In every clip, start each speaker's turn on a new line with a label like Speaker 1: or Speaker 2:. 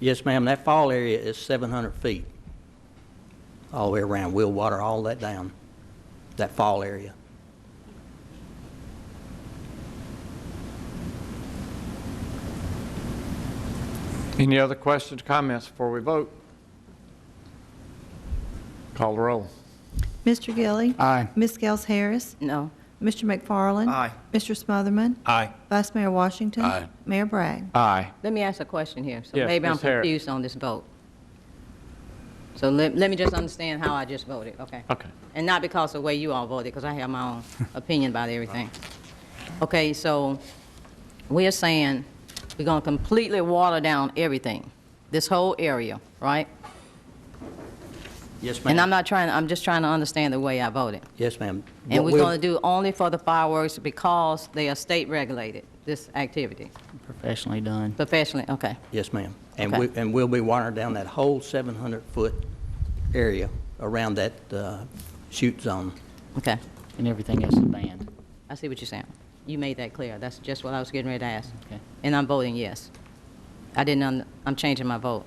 Speaker 1: Yes, ma'am, that fall area is 700 feet all the way around. We'll water all that down, that fall area.
Speaker 2: Any other questions, comments before we vote? Call the roll.
Speaker 3: Mr. Gilly.
Speaker 2: Aye.
Speaker 3: Ms. Gels Harris.
Speaker 4: No.
Speaker 3: Mr. McFarland.
Speaker 2: Aye.
Speaker 3: Mr. Smotherman.
Speaker 5: Aye.
Speaker 3: Vice Mayor Washington.
Speaker 5: Aye.
Speaker 3: Mayor Bragg.
Speaker 2: Aye.
Speaker 4: Let me ask a question here. So
Speaker 2: Yes,
Speaker 4: maybe I'm
Speaker 2: Ms. Harris.
Speaker 4: confused on this vote. So let, let me just understand how I just voted, okay?
Speaker 2: Okay.
Speaker 4: And not because of the way you all voted, because I have my own opinion about everything. Okay, so we're saying we're going to completely water down everything, this whole area, right?
Speaker 1: Yes,
Speaker 4: And I'm
Speaker 1: ma'am.
Speaker 4: not trying, I'm just trying to understand the way I voted.
Speaker 1: Yes, ma'am.
Speaker 4: And
Speaker 1: What
Speaker 4: we're
Speaker 1: we'll-
Speaker 4: going to do only for the fireworks because they are state-regulated, this activity,
Speaker 6: professionally done.
Speaker 4: professionally, okay?
Speaker 1: Yes, ma'am. And
Speaker 4: Okay.
Speaker 1: we, and we'll be watering down that whole 700-foot area around that uh, shoot zone.
Speaker 4: Okay.
Speaker 6: And everything else is banned.
Speaker 4: I see what you're saying. You made that clear. That's just what I was getting ready to ask.
Speaker 6: Okay.
Speaker 4: And I'm voting yes. I didn't, un- I'm changing my vote.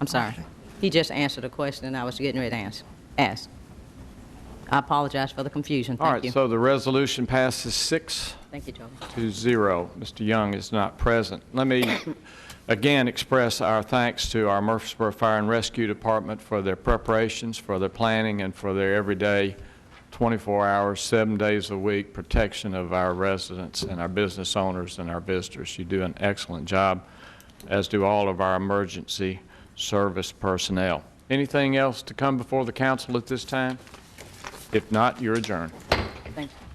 Speaker 4: I'm sorry. He just answered a question I was getting ready to ans- ask. I apologize for the confusion.
Speaker 2: All
Speaker 4: Thank
Speaker 2: right,
Speaker 4: you.
Speaker 2: so the resolution passes six
Speaker 4: Thank you, Joe.
Speaker 2: to zero. Mr. Young is not present. Let me again express our thanks to our Murfreesboro Fire and Rescue Department for their preparations, for their planning, and for their everyday, 24 hours, seven days a week, protection of our residents and our business owners and our visitors. You do an excellent job, as do all of our emergency service personnel. Anything else to come before the council at this time? If not, you're adjourned.
Speaker 4: Thank you.